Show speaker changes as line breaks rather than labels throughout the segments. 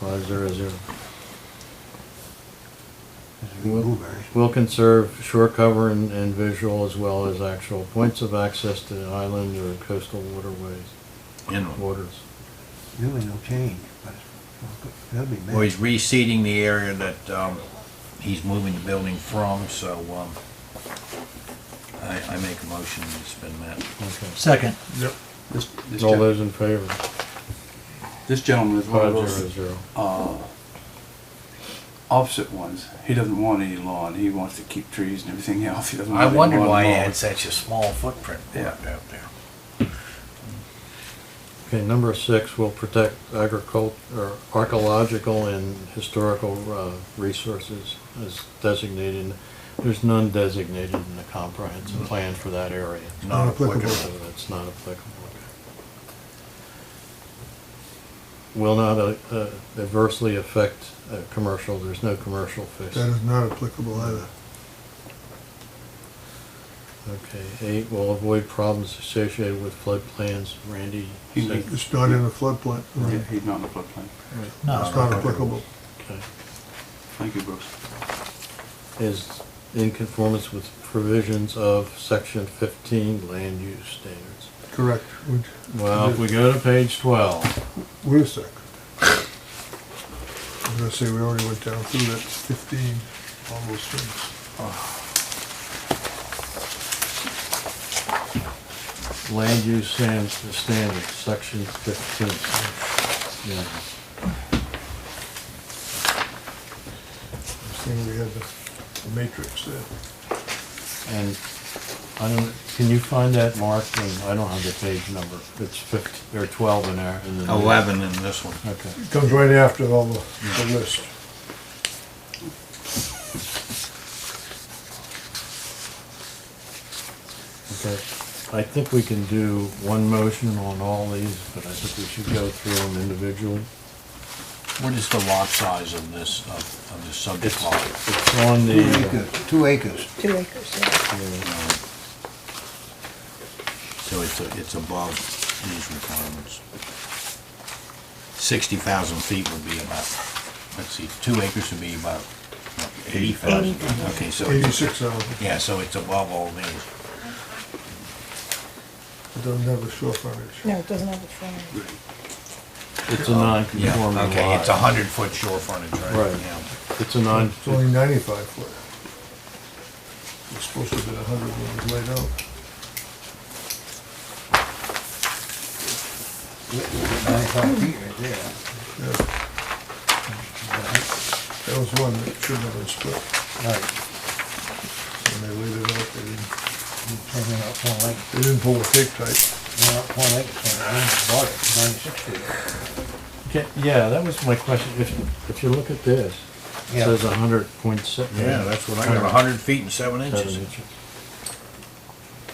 Five zero zero.
Blueberry.
Will conserve shore cover and, and visual as well as actual points of access to the island or coastal waterways,
Inland.
waters.
Really no change, but it's- that'll be
Well, he's
bad.
reseeding the area that, um, he's moving the building from, so, um, I, I make a motion that's been met.
Okay.
Second,
This, this
All
gen-
those in favor?
this gentleman is one
Five
of
zero
those
zero.
opposite ones. He doesn't want any lawn. He wants to keep trees and everything else. He doesn't
I
want any
wondered
lawn
why he
mowed.
had such a small footprint
Yeah.
out there.
Okay, number six, will protect agricult, or archaeological and historical, uh, resources as designated. There's none designated in the comprehensive plan for that area.
Not
Not applicable.
applicable.
So that's not applicable. Will not uh, uh, adversely affect uh, commercial, there's no commercial fish.
That is not applicable either.
Okay, eight, will avoid problems associated with floodplains, Randy.
He-
said-
It's not in the floodplain.
Yeah,
It's
he's not in the floodplain.
no,
not applicable.
Okay.
Thank you, Bruce.
Is in conformance with provisions of section fifteen land use standards.
Correct. Would-
Well, if we go to page twelve,
Wait a sec. I was gonna say, we already went down through that fifteen, all those things.
land use stan- standards, section fifteen. Yeah.
This thing, we had the the matrix there.
And I don't, can you find that mark? And I don't have the page number. It's fifty, or twelve in there. in the new-
Eleven in this one.
Okay.
It comes right after all the, the list.
Okay, I think we can do one motion on all these, but I think we should go through them individually.
What is the lot size of this, of, of the subject
It's,
lot?
it's on
Two
the,
acres, two acres.
Two acres, yeah.
Um, So it's, a- it's above these requirements. Sixty thousand feet would be about, let's see, two acres would be about eighty thousand. Okay, so,
Eighty-six thousand.
yeah, so it's above all these.
It doesn't have a shore frontage.
No, it doesn't have a front.
it's a non-conforming lot.
Okay, it's a hundred foot shore frontage, right?
Right.
Yeah.
It's a non,
It's only ninety-five foot. It's supposed to have been a hundred when it was laid out.
Ninety-five feet right there.
Yeah. That was one that should not have been split.
Right,
When they laid it out, they didn't,
something up one lake,
they didn't pull the tape tight.
one up one lake, one bought it, ninety-six feet.
Okay, yeah, that was my question. If, if you look at this, it
Yeah.
says a hundred point seven.
Yeah, that's what I got, a hundred feet and seven inches.
Seven inches.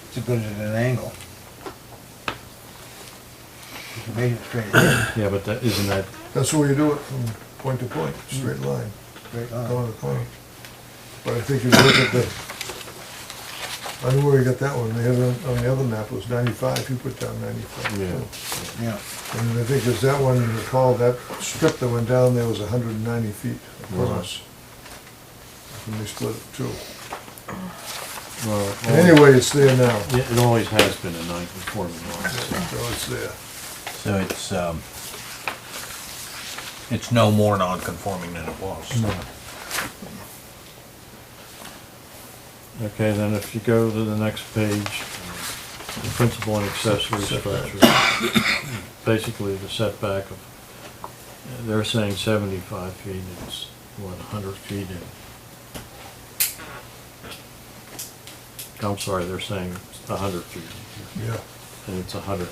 It's as good as an angle. You can measure it straight, in,
Yeah, but that, isn't that,
That's the way you do it, from point to point,
Mm-hmm.
straight line,
straight
Uh-huh.
line.
corner to corner. But I think if you look at the, I don't know where you got that one, they had it on, on the other map, it was ninety-five, you put down ninety-five. too.
yeah.
Yeah,
And I think there's that one, you recall, that strip that went down there was hundred and ninety feet across. And they split it too.
Well, it always-
Anyway, it's there now,
Yeah, It always has been a non-conforming lot.
so
so-
it's there.
So it's, um, it's no more non-conforming than it was.
Okay, then if you go to the next page, uh, the principal and accessory structure, basically the setback of, they're saying seventy-five feet, it's what, hundred feet in. I'm sorry, they're saying hundred feet,
Yeah,
and it's hundred,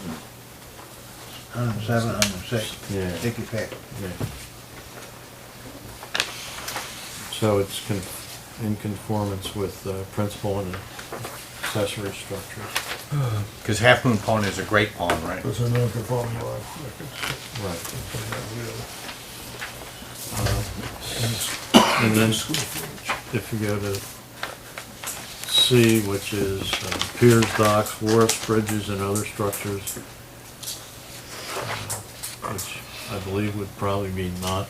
hundred and seven, hundred and six.
Yeah.
Sticky pack.
yeah. So it's con- in conformance with uh, principal and accessory structures.
Because Half Moon Pond is a great pond, right?
it's a non-conforming lot, like it's-
Right. Um,
And
And then if you go to C, which is uh, piers, docks, wharfs, bridges, and other structures, uh, which I believe would probably be not